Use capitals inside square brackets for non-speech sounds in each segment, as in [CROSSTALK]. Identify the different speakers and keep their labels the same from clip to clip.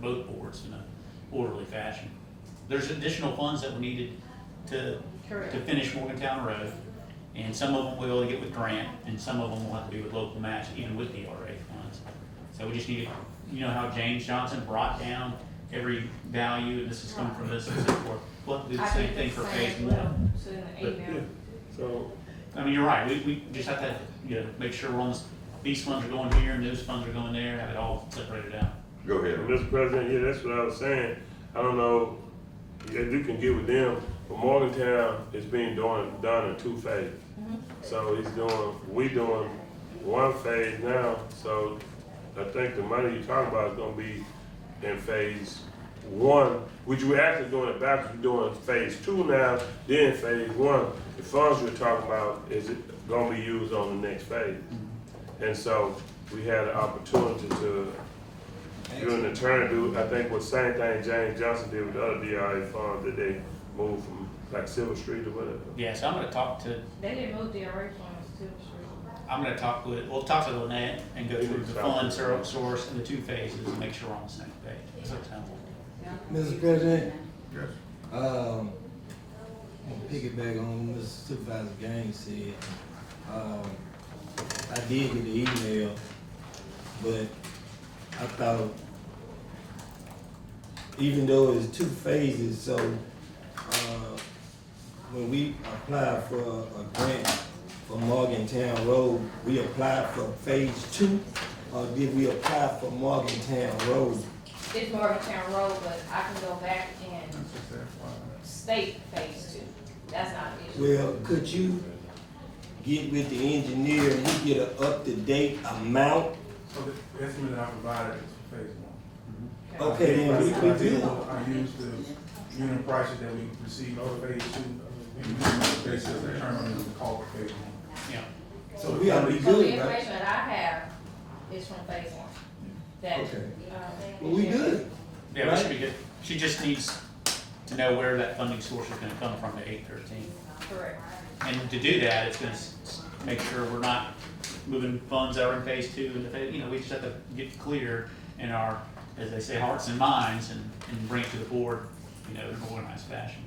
Speaker 1: both boards in a orderly fashion. There's additional funds that were needed to,
Speaker 2: Correct.
Speaker 1: to finish Morgantown Road. And some of them we'll be able to get with grant, and some of them will have to be with local match and with the RA funds. So we just need to, you know how James Johnson brought down every value, and this has come from this and so forth. We'll have to do the
Speaker 2: I
Speaker 1: same
Speaker 2: did
Speaker 1: thing for phase
Speaker 2: same as well,
Speaker 1: one.
Speaker 2: so in the
Speaker 1: But,
Speaker 2: email.
Speaker 3: So,
Speaker 1: I mean, you're right, we, we just have to, you know, make sure we're on this, these funds are going here and those funds are going there, have it all separated out.
Speaker 4: Go ahead.
Speaker 3: Mr. President, yeah, that's what I was saying. I don't know if you can get with them, but Morgantown is being done, done in two phases. So he's doing, we doing one phase now, so I think the money you're talking about is gonna be in phase one, which we're actually doing it backwards, we're doing phase two now, then phase one. The funds you're talking about is gonna be used on the next phase. And so we had an opportunity to you and the attorney do, I think, was same thing James Johnson did with the other DRA funds that they moved from like Silver Street or whatever.
Speaker 1: Yeah, so I'm gonna talk to,
Speaker 2: They didn't move the RA funds to the street.
Speaker 1: I'm gonna talk with, we'll talk to Lynette and go through the fund ser- source and the two phases and make sure we're on the same page. So,
Speaker 5: Mr. President,
Speaker 4: Yes.
Speaker 5: um, I'm gonna piggyback on what Supervisor Gaines said. Um, I did get the email, but I thought, even though it's two phases, so, uh, when we applied for a grant for Morgantown Road, we applied for phase two, or did we apply for Morgantown Road?
Speaker 2: It's Morgantown Road, but I can go back and state phase two. That's not an issue.
Speaker 5: Well, could you get with the engineer and we get an up-to-date amount?
Speaker 6: So the estimate that I provided is for phase one.
Speaker 5: Okay, then we,
Speaker 6: I
Speaker 5: we
Speaker 6: did-
Speaker 5: do.
Speaker 6: I used the unit prices that we received for phase two, and used the basis of determining the cost of phase one.
Speaker 1: yeah,
Speaker 5: So we ought to be
Speaker 2: So the
Speaker 5: good, right?
Speaker 2: information that I have is from phase one. That,
Speaker 5: Okay.
Speaker 2: um.
Speaker 5: Well, we good.
Speaker 1: yeah, we should be good. She just needs to know where that funding source is gonna come from to eight thirteen.
Speaker 2: Correct.
Speaker 1: And to do that, it's gonna s- s- make sure we're not moving funds that are in phase two, and, the phase- you know, we just have to get clear in our, as they say, hearts and minds, and, and bring it to the board, you know, in an organized fashion.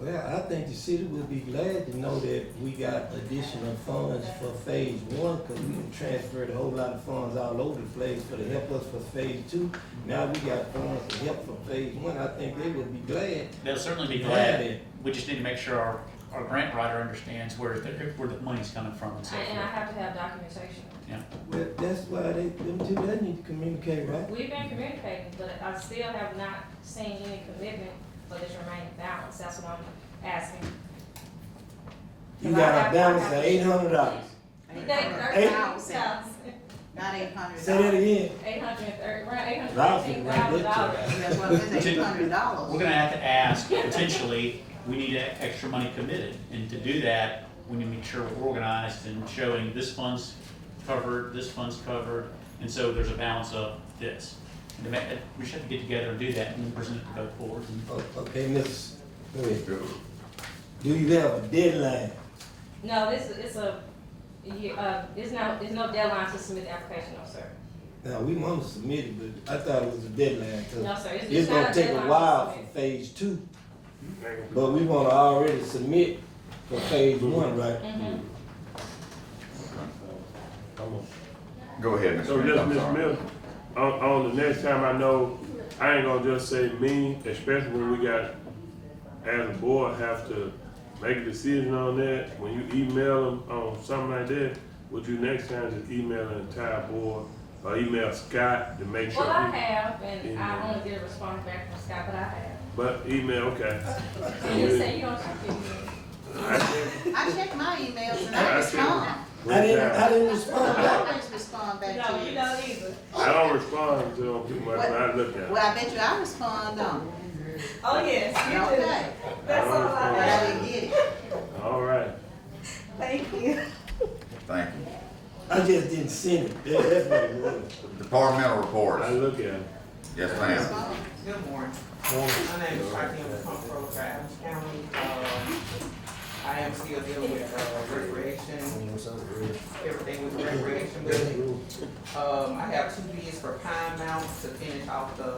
Speaker 5: Well, I think the city would be glad to know that we got additional funds for phase one, cause we done transferred a whole lot of funds all over the place for to help us for phase two. Now we got funds to help for phase one, I think they would be glad.
Speaker 1: They'll certainly be
Speaker 5: Yeah,
Speaker 1: glad,
Speaker 5: yeah.
Speaker 1: we just need to make sure our, our grant writer understands where, the- where the money's coming from and so
Speaker 2: I- And I
Speaker 1: forth.
Speaker 2: have to have documentation.
Speaker 1: Yeah,
Speaker 5: Well, that's why they, them two, they need to communicate, right?
Speaker 2: We've been communicating, but I still have not seen any commitment for this remaining balance. That's what I'm asking.
Speaker 5: You got a balance of eight hundred dollars.
Speaker 2: Eight
Speaker 5: Eight-
Speaker 7: Not eight hundred.
Speaker 5: Say that again.
Speaker 2: Eight hundred and thirty, around eight hundred and
Speaker 5: Ralphie,
Speaker 2: fifteen
Speaker 5: right
Speaker 2: thousand dollars.
Speaker 5: there.
Speaker 7: That's what it
Speaker 5: [LAUGHS]
Speaker 7: is, eight hundred
Speaker 1: we're
Speaker 7: dollars.
Speaker 1: gonna have to ask, potentially, we need e- extra money committed, and to do that, we need to make sure we're organized and showing this fund's covered, this fund's covered, and so there's a balance of this. And to make, that- we should have to get together and do that, and then present it to both boards, and
Speaker 5: O- Oh, Okay, Miss, wait,
Speaker 4: Good.
Speaker 5: do you have a deadline?
Speaker 2: No, this, is- it's a, you, uh, it's no, it's no deadline to submit the application, no, sir.
Speaker 5: Now, we want to submit it, but I thought it was a deadline,
Speaker 2: No,
Speaker 5: cause
Speaker 2: sir, it's,
Speaker 5: it's
Speaker 2: it's not
Speaker 5: gonna
Speaker 2: a
Speaker 5: take
Speaker 2: deadline
Speaker 5: a
Speaker 2: to
Speaker 5: while for
Speaker 2: submit.
Speaker 5: phase two,
Speaker 3: Thank you.
Speaker 5: but we wanna already submit for phase one, right?
Speaker 2: Mhm.
Speaker 3: Come on.
Speaker 4: Go ahead, Mr.
Speaker 3: So
Speaker 4: Smith,
Speaker 3: just
Speaker 4: I'm
Speaker 3: Ms.
Speaker 4: sorry.
Speaker 3: Miller, on, on the next time, I know, I ain't gonna just say me, especially when we got, as a board, have to make a decision on that. When you email them on something like that, would you next time just email the entire board, or email Scott to make sure?
Speaker 2: Well, I
Speaker 3: he-
Speaker 2: have, and I
Speaker 3: Yeah.
Speaker 2: only get a response back from Scott, but I have.
Speaker 3: But email, okay.
Speaker 2: And you say you don't check your email.
Speaker 3: I think-
Speaker 7: I check my emails and I respond.
Speaker 5: I didn't, I didn't respond
Speaker 7: I
Speaker 5: back.
Speaker 7: always respond back
Speaker 2: No,
Speaker 7: to
Speaker 2: you
Speaker 7: you.
Speaker 2: don't either.
Speaker 3: I don't respond to them too much, but I look at it.
Speaker 7: Well, I bet you I respond, don't.
Speaker 2: Oh, yes, you do.
Speaker 7: Okay,
Speaker 2: That's all I
Speaker 7: but I didn't get it.
Speaker 3: All right.
Speaker 2: Thank you.
Speaker 4: Thank you.
Speaker 5: I just didn't send it, That- that's what it was.
Speaker 4: Departmental
Speaker 3: I
Speaker 4: reports.
Speaker 3: look at it.
Speaker 4: Yes, ma'am.
Speaker 7: Respond.
Speaker 8: Good morning. My name is Martin with Pump Road Adams County. Um, I am still dealing with uh, recreation, everything with recreation building. Um, I have two bids for Pine Mountain to finish off the